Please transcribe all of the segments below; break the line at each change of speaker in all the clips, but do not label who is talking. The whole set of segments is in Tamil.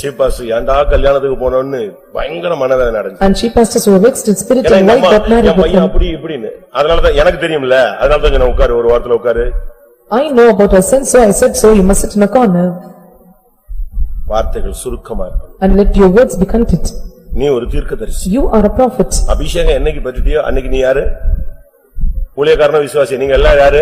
சீபாஸ் ஏன்டா கல்யாணத்துக்கு போனோம்னு பயங்கர மனவேதனை அடைஞ்சு
And she pastors were vexed in spirit
ஏன்னா
and
எங்க
wife
அம்மா,
got married
என்
with
பையன்
him.
அப்படி இப்படின்னு அதனாலதான் எனக்கு தெரியும்ல அதனாலதான் சொன்னேன் உட்காரு ஒரு வாரத்துல உட்காரு
I know about her sin, so I said so, you must sit in a corner
வார்த்தைகள் சுருக்கமா இருக்கும்
and let your words be content.
நீ ஒரு தீர்க்கதரிசி
You are a prophet.
அபிஷேகம் என்னைக்கு பற்றிட்டியோ அன்னைக்கு நீ யாரு ஊழியக்காரன விசுவாசி நீங்க எல்லாம் யாரு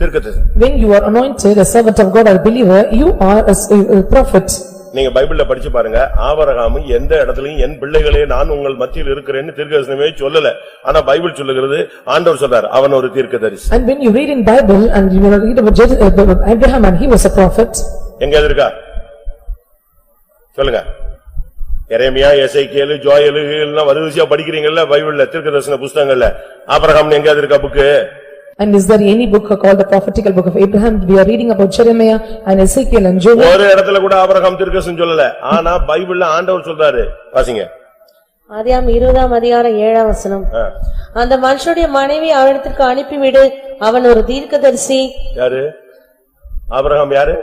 தீர்க்கதரிசி
When you are anointed, a servant of God or a believer, you are a s- a a prophet.
நீங்க பைபிள்ல படிச்சு பாருங்க ஆபரகாம் எந்த இடத்துலயும் என் பிள்ளைகளே நான் உங்கள் மத்தியில் இருக்கிறேன்னு தீர்க்கதரிசனமே சொல்லல ஆனா பைபிள் சொல்லுகிறது ஆண்டவர் சொல்றார் அவன் ஒரு தீர்க்கதரிசி
And when you read in Bible and you will read about Jer- uh, about Abraham and he was a prophet.
எங்க அது இருக்கா? சொல்லுங்க. எரேமியா, எசைக்கேலு, ஜோயலு எல்லாம் வருதுசியா படிக்கிறீங்கல்ல பைபிள்ல திருக்கதர்சன புஸ்தகங்கள்ல. ஆபிரகாம் எங்க அது இருக்கா book?
And is there any book called the prophetical book of Abraham? We are reading about Jeremiah and Ezekiel and Joel.
ஒரு இடத்துல கூட ஆபிரகாம் திருக்கதர்சனம் சொல்லல. ஆனா பைபிள்ல ஆண்டவர் சொல்றாரு. வாசிங்க.
ஆதியாம் இருபதாம் அதிகாரம் ஏழாம் வசனம்
ஆ.
அந்த மனுஷனுடைய மனைவி அவனிடத்திற்கு அனுப்பிவிடு அவன் ஒரு தீர்க்கதரிசி
யாரு? ஆபிரகாம் யாரு?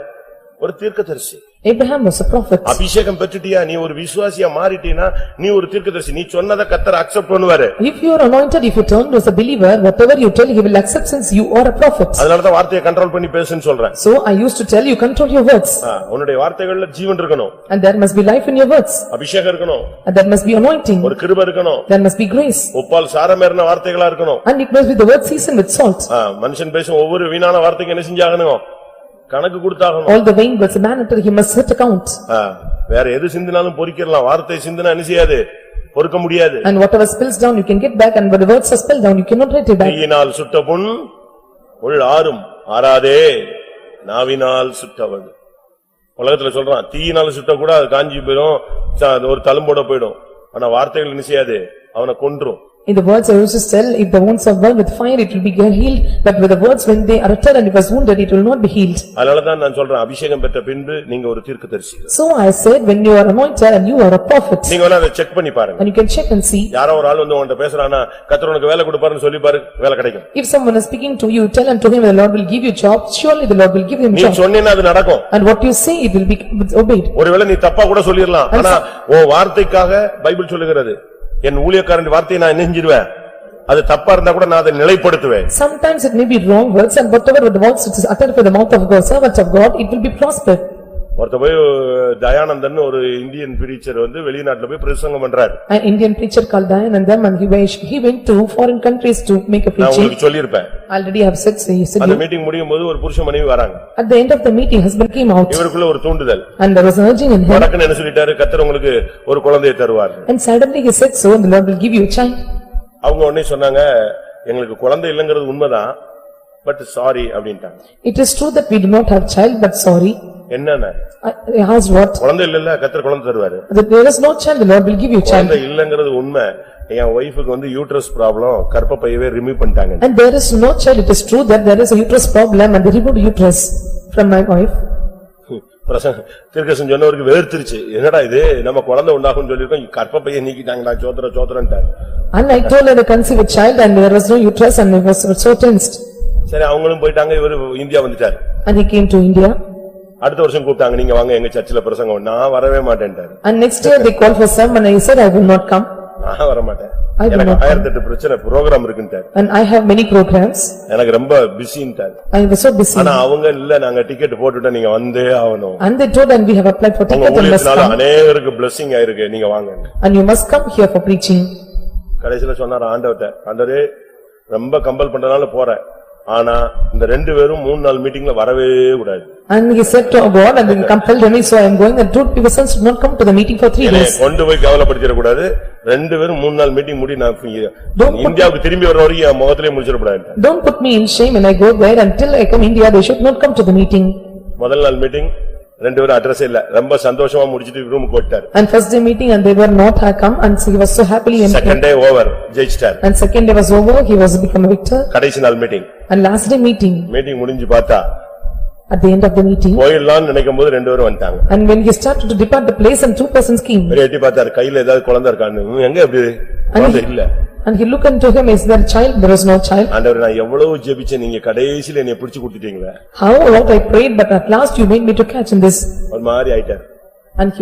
ஒரு தீர்க்கதரிசி.
Abraham was a prophet.
அபிஷேகம் பெற்றுட்டியா நீ ஒரு விசுவாசியா மாறிட்டீனா நீ ஒரு தீர்க்கதரிசி. நீ சொன்னதை கத்தர் அக்செப்ட் பண்ணுவாரு.
If you are anointed, if you turn as a believer, whatever you tell, he will accept since you are a prophet.
அதனாலதான் வார்த்தையை கண்ட்ரோல் பண்ணி பேசுன்னு சொல்றேன்.
So I used to tell you, control your words,
ஆ, உன்னுடைய வார்த்தைகள்ல ஜீவன் இருக்கணும்.
and there must be life in your words,
அபிஷேகம் இருக்கணும்.
and there must be anointing,
ஒரு கிருப இருக்கணும்
there must be grace,
உப்பால் சாரமேறின வார்த்தைகளா இருக்கணும்
and it must be the word seasoned with salt.
ஆ, மனுஷன் பேசும் ஒவ்வொரு வீணான வார்த்தைக்கு என்ன செஞ்சாகணும் கணக்கு கொடுத்தாகணும்
All the vain words, a man until he must set account,
ஆ, வேற எது சிந்தினாலும் பொறிக்கிறலாம் வார்த்தை சிந்தினா என்ன செய்யாது பொறுக்க முடியாது
and whatever spills down, you can get back, and when the words are spilled down, you cannot write it back.
கையினால் சுட்ட புண் உள் ஆறும் ஆறாதே நாவினால் சுட்டவள் உலகத்துல சொல்றான் தீயினால சுட்ட கூட அது காஞ்சி போயிடும் ச- அது ஒரு தழும்போட போயிடும் ஆனா வார்த்தைகள் என்ன செய்யாது அவனை கொன்றும்
In the words I used to tell, if the wounds are burned with fire, it will be healed, but with the words, when they are uttered and it was wounded, it will not be healed.
அதனாலதான் நான் சொல்றேன் அபிஷேகம் பெற்ற பின்பு நீங்க ஒரு தீர்க்கதரிசி
So I said, when you are anointed and you are a prophet,
நீங்க வேணா அதை செக் பண்ணி பாருங்க
and you can check and see,
யாரோ ஒரு ஆள் வந்து உன்கிட்ட பேசுறானா கத்தர் உனக்கு வேலை கொடுப்பாருன்னு சொல்லி பாரு வேலை கிடைக்கும்
if someone is speaking to you, tell unto him, the Lord will give you job, surely the Lord will give him
நீ
job.
சொன்னீன்னா அது நடக்கும்
And what you say, it will be obeyed.
ஒருவேளை நீ தப்பா கூட சொல்லிடலாம் ஆனா உன் வார்த்தைக்காக பைபிள் சொல்லுகிறது என் ஊழியக்காரன் வார்த்தையை நான் நெஞ்சிருவேன் அது தப்பா இருந்தா கூட நான் அதை நிலைப்படுத்துவேன்
Sometimes it may be wrong words and whatever the words which is uttered by the mouth of God, servant of God, it will be prospered.
ஒருத்த போய் தயானந்தன் ஒரு இந்தியன் பிரீச்சர் வந்து வெளிநாட்டுல போய் பிரசங்கம் பண்றாரு
An Indian preacher called Dayanandam and he went, he went to foreign countries to make a
நான்
preaching.
உங்களுக்கு சொல்லியிருப்பேன்
Already I have said, so he said,
அந்த மீட்டிங் முடியும் போது ஒரு புருஷ மனைவி வராங்க
at the end of the meeting, husband came out
இவருக்குள்ள ஒரு தூண்டுதல்
and there was an urging in him
வடக்குன்னு என்ன சொல்லிட்டாரு கத்தர் உங்களுக்கு ஒரு குழந்தையை தருவார்
and suddenly he said, so and the Lord will give you a child.
அவங்க உடனே சொன்னாங்க எங்களுக்கு குழந்தை இல்லைங்கிறது உண்மைதான் பட் சாரி அப்படின்ட்டாங்க
It is true that we do not have child, but sorry.
என்னென்ன
I I asked what?
குழந்தை இல்லல்ல கத்தர் குழந்தை தருவாரு
That There is no child, the Lord will give you child.
குழந்தை இல்லங்கிறது உண்மை என் ஒய்ஃபுக்கு வந்து யூட்ரஸ் ப்ராப்ளம் கர்ப்பப்பையவே ரிமூவ் பண்ணிட்டாங்க
And there is no child, it is true that there is a uterus problem and they removed uterus from my wife.
பிரசங்க திருக்கசன் சொன்னவருக்கு வேர்த்திருச்சு என்னடா இது நம்ம குழந்தை உண்டாகும்னு சொல்லிருக்கோம் கர்ப்பப்பையை நீக்கிட்டாங்க நான் சோத்திர சோத்திரன்ட்டாரு
And I told her to conceive a child and there was no uterus and I was so tensed.
சரி அவங்களும் போயிட்டாங்க இவரு இந்தியா வந்துட்டாரு
And he came to India
அடுத்த வருஷம் கூப்பிட்டாங்க நீங்க வாங்க எங்க சர்ச்சில் பிரசங்கம் நான் வரவே மாட்டேன்ட்டாரு
and next year they called for some and I said I will not come
நான் வர மாட்டேன்
I will
எனக்கு
not come.
ஆயிரத்தி எட்டு பிரச்சனை ப்ரோக்ராம் இருக்குன்ட்டாரு
and I have many programs.
எனக்கு ரொம்ப பிஸின்ட்டாரு
I was so busy
ஆனா அவங்க இல்ல நாங்க டிக்கெட் போட்டுட்டோம் நீங்க வந்தே ஆகணும்
and they told and we have applied for
உங்க
ticket and must
ஊழியத்தினால
come
அநேகருக்கு blessing ஆயிருக்கு நீங்க வாங்க
and you must come here for preaching.
கடைசில சொன்னார் ஆண்டவர்ட்ட ஆண்டவரே ரொம்ப கம்பல் பண்றதுனால போறேன் ஆனா இந்த ரெண்டு பேரும் மூணு நாள் மீட்டிங்ல வரவே கூடாது
And he said to God and then compelled me so I am going and two persons did not come to the meeting for three
என்னைய
days.
கொண்டு போய் கவலைப்படுத்திட கூடாது ரெண்டு பேரும் மூணு நாள் மீட்டிங் முடி நான் free.
Don't put-
இந்தியாவுக்கு திரும்பி வர வரைக்கும் என் முகத்திலே முடிச்சிடக்கூடாது
Don't put me in shame when I go there until I come India, they should not come to the meeting.
முதல் நாள் மீட்டிங் ரெண்டு பேரும் அட்ரஸ் இல்ல ரொம்ப சந்தோஷமா முடிச்சிட்டு ரூம் போட்டார்
And first day meeting and they were not had come and so he was so happily empty.
Second day over ஜெயிச்சிட்டார்
And second day was over, he was become a victor.
கடைசி நாள் meeting
And last day meeting,
meeting முடிஞ்சு பார்த்தா
at the end of the meeting.
போயிடலாம்னு நினைக்கும் போது ரெண்டு பேரும் வந்துட்டாங்க
And when he started to depart the place and two persons came.
பெரிய எட்டி பார்த்தாரு கையில ஏதாவது குழந்தை இருக்கான்னு "ம், எங்க எப்படி குழந்தை இல்ல
And he looked unto him, is there a child? There was no child.
ஆண்டவர் நான் எவ்வளவு ஜெபிச்சேன் நீங்க கடைசியில என்னை பிடிச்சு கொடுத்துட்டீங்களே
How, what I prayed, but at last you made me to catch in this.
ஒரு மாதிரி ஆயிட்டார்
And he